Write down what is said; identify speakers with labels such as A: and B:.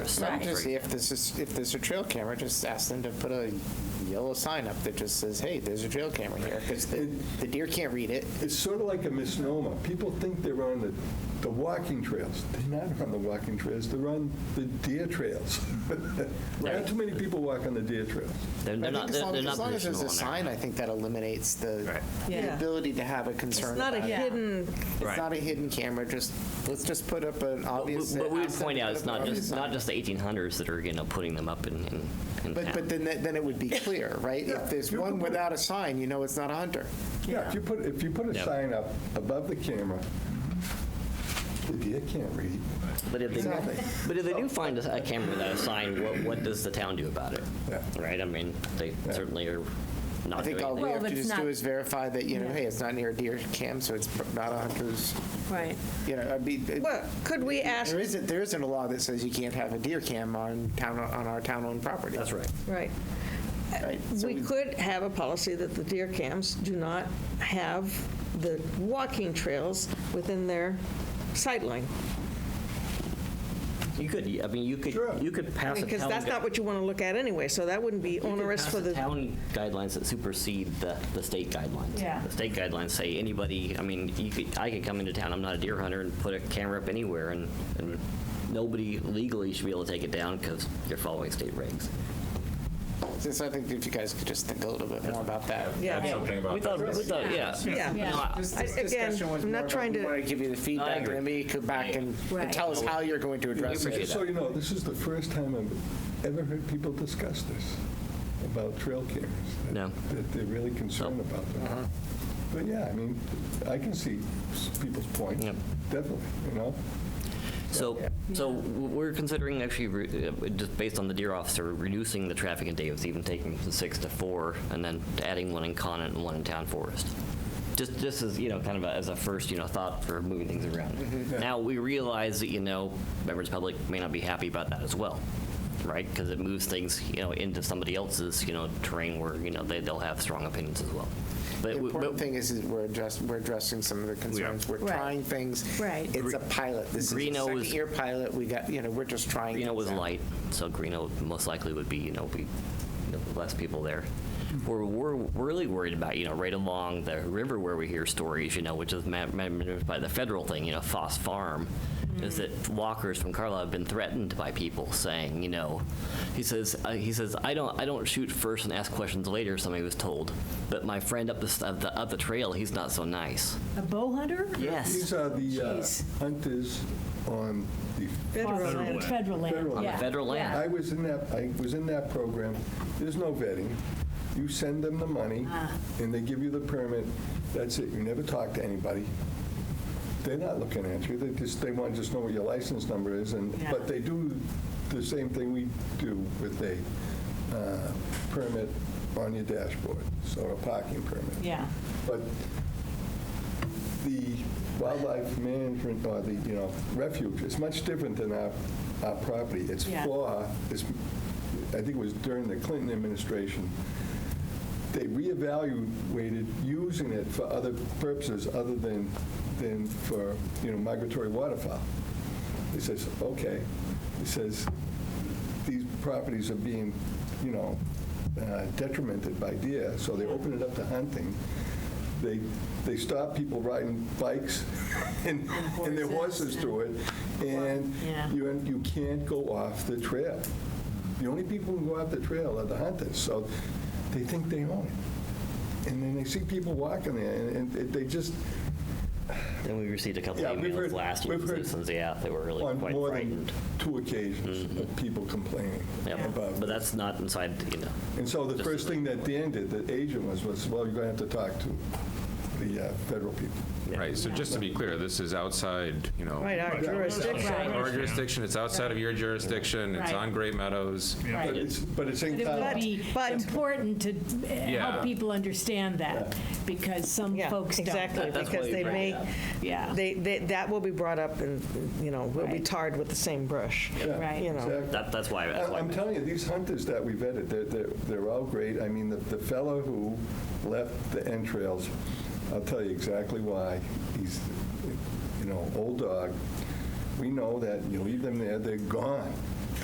A: Right.
B: Just if this is, if there's a trail camera, just ask them to put a yellow sign up that just says, hey, there's a trail camera here, because the, the deer can't read it.
C: It's sort of like a misnomer. People think they're on the, the walking trails. They're not on the walking trails, they're on the deer trails. Not
B: Right.
C: too many people walk on the deer trails.
D: They're
B: I
D: they're
B: think
D: not,
B: as
D: they're
B: long,
D: they're not
B: as long as there's a
D: positional on
B: sign,
D: there.
B: I think that eliminates the
D: Right.
B: the
E: Yeah.
B: ability to have a concern
E: It's not a
B: about it.
A: Yeah.
E: hidden,
B: It's
D: Right.
B: not a hidden camera, just, let's just put up
D: But
B: an
D: we-
B: obvious.
D: But we would
B: ask them
D: point
B: to
D: out,
B: put
D: it's
B: up an
D: not
B: obvious
D: just, not
B: sign.
D: just the 1800s that are, you know, putting them up in, in- in
B: But, but
D: town.
B: then, that- then it would be clear, right?
C: Yeah,
B: If there's
C: you
B: one
C: can put-
B: without a sign, you know it's not a hunter.
C: Yeah, if you put, if you put a
D: Yep.
C: sign up above the camera, the deer can't read.
D: But if they,
C: Exactly.
D: but if they do find a a camera without a sign, what, what does the town do about it?
C: Yeah.
D: Right, I mean, they certainly are
B: I
D: not doing
B: think all
D: anything.
B: we have
A: Well,
B: to
A: it's
B: just do
A: not-
B: is verify that, you know,
A: Yeah.
B: hey, it's not near a deer camp, so it's not a hunter's,
A: Right.
B: you know, I'd be. it-
E: well, could we ask,
B: There isn't, there isn't a law that says you can't have a deer cam on town, on our town-owned property.
D: That's right.
E: right, Uh,
B: right? So
E: we could have a policy that the deer camps do not have the walking trails within their sightline.
D: You could, I mean, you could,
C: Sure.
D: you could pass a town.
E: Because that's
D: gu-
E: not what you want to look at anyway, so that wouldn't be
D: you could
E: onerous
D: pass
E: for
D: a
E: the,
D: Town guidelines that supersede the, the state guidelines.
A: Yeah.
D: The state guidelines say anybody, I mean, you could, I could come into town, I'm not a deer hunter, and put a camera up anywhere, and, and nobody legally should be able to take it down because you're following state regs.
B: so I think if you guys could just think a little bit more about that.
E: yeah.
F: something about
D: We thought,
F: that.
D: we thought, yeah.
E: Yeah.
A: Yeah.
D: No, I-
B: This
E: I-
B: this
E: again,
B: discussion was
E: I'm
B: more
E: not
B: about,
E: trying
B: we
E: to-
B: want to give you the feedback,
D: agree.
B: and then you come back and and
A: Right.
B: tell us how you're going to address
D: appreciate
B: it.
C: So you know, this is the first time I've ever heard people discuss this, about trail cameras. that-
D: No.
C: That they're really concerned
D: No.
C: about
B: Uh-huh.
C: them. But yeah, I mean, I can see s- people's point,
D: Yep.
C: definitely, you know?
D: So, so we're considering actually, re- uh, just based on the deer officer, reducing the traffic in Davis, even taking from six to four, and then adding one in Conant and one in Town Forest. Just, just as, you know, kind of a- as a first, you know, thought for moving things around. Now, we realize that, you know, members of the public may not be happy about that as well, right? Because it moves things, you know, into somebody else's, you know, terrain where, you know, they, they'll have strong opinions as well. But
B: The
D: we-
B: important
D: but-
B: thing is, is we're addressing, we're addressing some of the concerns. We're
A: Right.
B: trying things.
A: Right.
B: It's a pilot. This is a
D: Greeno was-
B: second-year pilot. We got, you know, we're just trying.
D: Greeno
B: things
D: was
B: out.
D: light, so Greeno most likely would be, you know, be you know, less people there.
C: Hmm.
D: We're, we're really worried about, you know, right along the river where we hear stories, you know, which is ma- managed by the federal thing, you know, Foss Farm, is
C: Hmm.
D: that walkers from Carlisle have been threatened by people saying, you know, he says, uh, he says, I don't, I don't shoot first and ask questions later. Somebody was told, but my friend up the s- up the, up the trail, he's not so nice.
A: A bow hunter?
C: These are the uh,
A: Jeez.
C: hunters on the,
E: federal land.
A: Federal
C: Federal
A: land,
C: land.
A: yeah.
D: Federal land.
C: I was in that, I was in that program. There's no vetting. You send them the money,
A: Uh.
C: and they give you the permit. That's it. You never talk to anybody. They're not looking at you. They just, they want to just know what your license number is, and,
A: Yeah.
C: but they do the same thing we do with a uh, permit on your dashboard, so a parking permit.
A: Yeah.
C: But the wildlife management, or the, you know, refuge is much different than our, our property. It's
A: Yeah.
C: for, it's, I think it was during the Clinton administration, they reevaluated using it for other purposes other than, than for, you know, migratory waterfowl. He says, okay. He says, these properties are being, you know, uh, detrimented by deer, so they open it up to hunting. They, they stop people riding bikes and, and their horses
A: horses
C: through it, and
A: Yeah.
C: you, you can't go off the trail. The only people who go off the trail are the hunters, so they think they own it. And then they see people walking there, and and they just,
D: Then we received a couple
C: Yeah,
D: of
C: we've
D: emails
C: heard-
D: last year
C: we've
D: from
C: heard
D: citizens. Yeah, they were really
C: on
D: quite
C: more
D: frightened. Mm-hmm.
C: than two occasions, of people complaining
D: Yeah,
C: about
D: but that's not inside, you know.
C: And so the
D: Just
C: first thing that Dan did, the agent was, was, well, you're going to have to talk to the uh, federal people.
F: Right, so just to be clear, this is outside, you know.
E: Right, our jurisdiction.
A: Right.
F: Our jurisdiction, it's outside of your jurisdiction, it's
A: Right.
F: on Great Meadows.
C: But
A: Right.
C: it's, but it's
A: But
C: in
A: it would
C: town.
A: be
E: But-
A: important to uh,
F: Yeah.
A: help people understand that, because some
E: Yeah,
A: folks don't.
E: exactly,
D: That's why
E: because
D: we
E: they
D: bring it
E: may,
D: up.
A: Yeah.
E: they, they- that will be brought up and, you know, will be
A: Right.
E: tarred with the same brush.
C: Yeah,
A: Right.
E: You know.
C: exactly.
D: That, that's why, that's
C: I-
D: why.
C: I'm telling you, these hunters that we vetted, they're, they're, they're all great. I mean, the, the fellow who left the entrails, I'll tell you exactly why. He's, you know, old dog. We know that you leave them there, they're gone.